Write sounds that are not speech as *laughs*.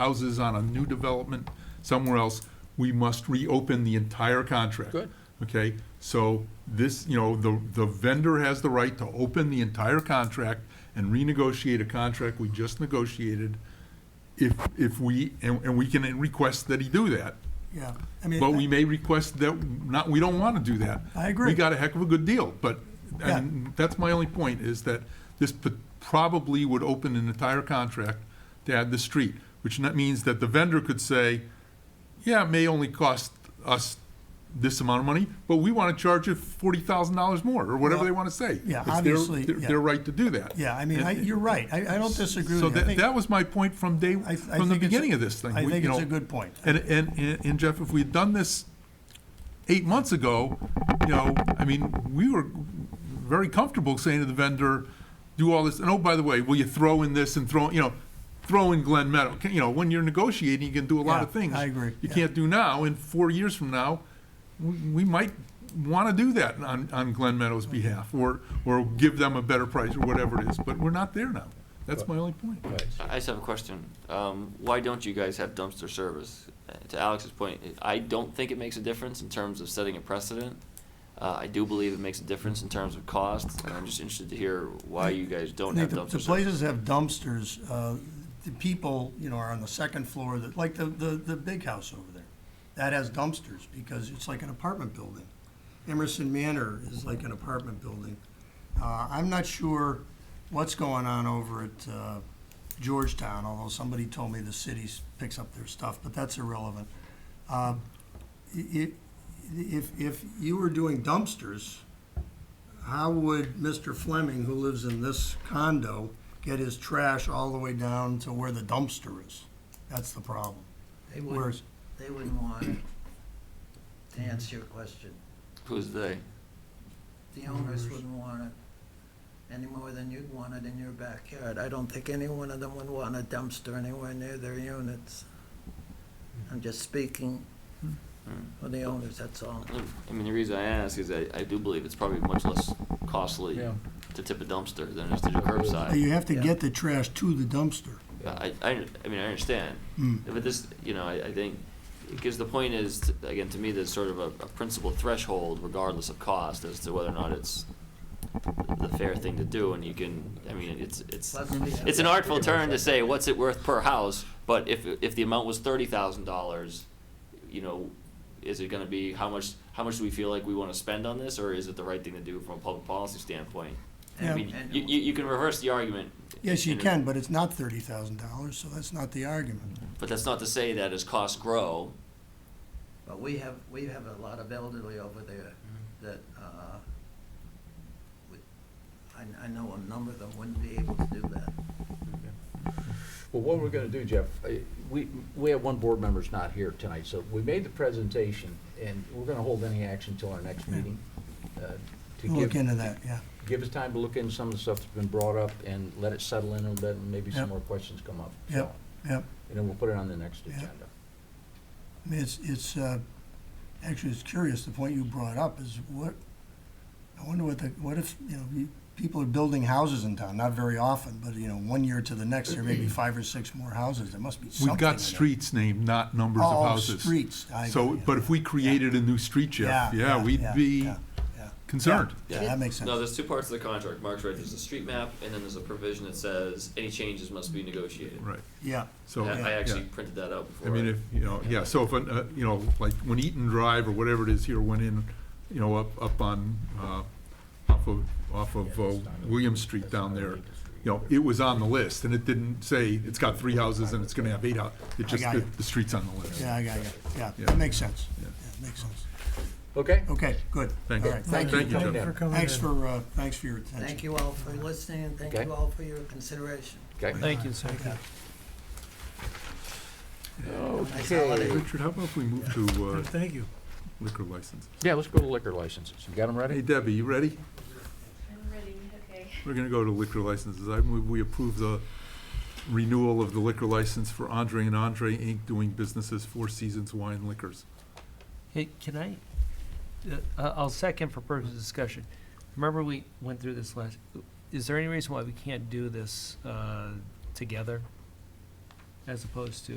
houses on a new development somewhere else, we must reopen the entire contract. Good. Okay, so this, you know, the, the vendor has the right to open the entire contract and renegotiate a contract we just negotiated if, if we, and, and we can request that he do that. Yeah, I mean, But we may request that, not, we don't want to do that. I agree. We got a heck of a good deal, but, Yeah. and that's my only point, is that this p- probably would open an entire contract to add the street, which not- means that the vendor could say, yeah, it may only cost us this amount of money, but we want to charge you forty thousand dollars more, or whatever Well, they want to say. yeah, It's their- obviously, their- yeah. Their right to do that. yeah, I mean, I, you're right. I, I don't disagree So with you. I that, think- that was my point from day, I- from I think the it's a- beginning of this thing. I We- think you it's know, a good point. And, and, and- and Jeff, if we'd done this eight months ago, you know, I mean, we were very comfortable saying to the vendor, do all this, and oh, by the way, will you throw in this and throw, you know, throw in Glen Meadow? Can- You know, when you're negotiating, you can do a lot of Yeah, things. I agree, You yeah. can't do now, and four years from now, we, we might wanna do that on, on Glen Meadow's behalf, or, or give them a better price, or whatever it is, but we're not there now. That's my only point. Right. I just have a question. Um, why don't you guys have dumpster service? Uh, To Alex's point, I don't think it makes a difference in terms of setting a precedent. Uh, I do believe it makes a difference in terms of cost, and I'm just interested to hear why you guys I don't think have the- The dumpster service. places have dumpsters, uh, the people, you know, are on the second floor, that, like the, the, the big house over there. That has dumpsters because it's like an apartment building. Emerson Manor is like an apartment building. Uh, I'm not sure what's going on over at, uh, Georgetown, although somebody told me the city picks up their stuff, but that's irrelevant. Um, i- i- if, if you were doing dumpsters, how would Mr. Fleming, who lives in this condo, get his trash all the way down to where the dumpster is? That's the problem. They Whereas, wouldn't, they wouldn't want it. To answer your question, Who's they? the owners wouldn't want it any more than you'd want it in your backyard. I don't think any one of them would want a dumpster anywhere near their units. I'm just speaking for the owners, that's all. I mean, the reason I ask is I, I do believe it's probably much less costly Yeah. to tip a dumpster than it is to do but curbside. you have to get the trash to the dumpster. I, I, I mean, I understand, Hmm. but this, you know, I, I think, because the point is, t- again, to me, there's sort of a, a principal threshold regardless of cost as to whether or not it's the fair thing to do, and you can, I mean, it's, it's, Plus we have- it's an artful turn to say, what's it worth per house, but if, if the amount was thirty thousand dollars, you know, is it gonna be, how much, how much do we feel like we wanna spend on this, or is it the right thing to do from a public policy standpoint? I Yeah. mean, you, you, you can reverse the argument. Yes, you in a- can, but it's not thirty thousand dollars, so that's not the argument. But that's not to say that as costs grow, But we have, we have a lot of elderly over there that, uh, we- I, I know a number of them wouldn't be able to do that. Well, what we're gonna do, Jeff, uh, we, we have one board member's not here tonight, so we made the presentation, and we're gonna hold any action until our next meeting. uh, to We'll give- look into that, yeah. Give us time to look into some of the stuff that's been brought up and let it settle in a little bit, and maybe Yep. some more questions come up. so. Yep, yep. And then we'll put it on the next Yep. agenda. I mean, it's, it's, uh, actually, it's curious, the point you brought up is what, I wonder what the, what if, you know, you- people are building houses in town, not very often, but, you know, one year to the next, there may be five or six more houses, there must be something. We've in got there. streets named, not numbers of Oh, houses. streets, I So, agree, but if we created a new street, Jeff, yeah, we'd yeah, be yeah, yeah. concerned. Yeah, that makes sense. No, there's two parts of the contract. Mark's right. There's a street map, and then there's a provision that says any changes must be negotiated. Right, Yeah, so. I, I yeah. actually printed that out before. I mean, I- if, you know, yeah, so if, an, uh, you know, like when Eaton Drive or whatever it is here went in, you know, up, up on, uh, off of, off of uh, William Street down there, you know, it was on the list, and it didn't say it's got three houses and it's gonna have eight houses. It just, got the, you. the street's on the list. yeah, I got you, yeah, Yeah. that makes sense, Yeah. yeah, makes sense. Okay? Okay, good. Thank All you. right, Thank you. Thank you, Jeff. Thanks for, uh, thanks for your attention. Thank you all for listening, and thank Okay. you all for your consideration. Okay. you, sir. Nice holiday. Richard, how about if we move to, *laughs* uh, Thank you. liquor license? Yeah, let's go to liquor licenses. You got them Hey ready? Debbie, you ready? I'm ready, okay. We're gonna go to liquor licenses. I move we approve the renewal of the liquor license for Andre and Andre Inc. doing businesses Four Seasons Wine Liquors. Hey, can I, uh, I- I'll second for purpose of discussion. Remember we went through this last, is there any reason why we can't do this uh, together? as opposed to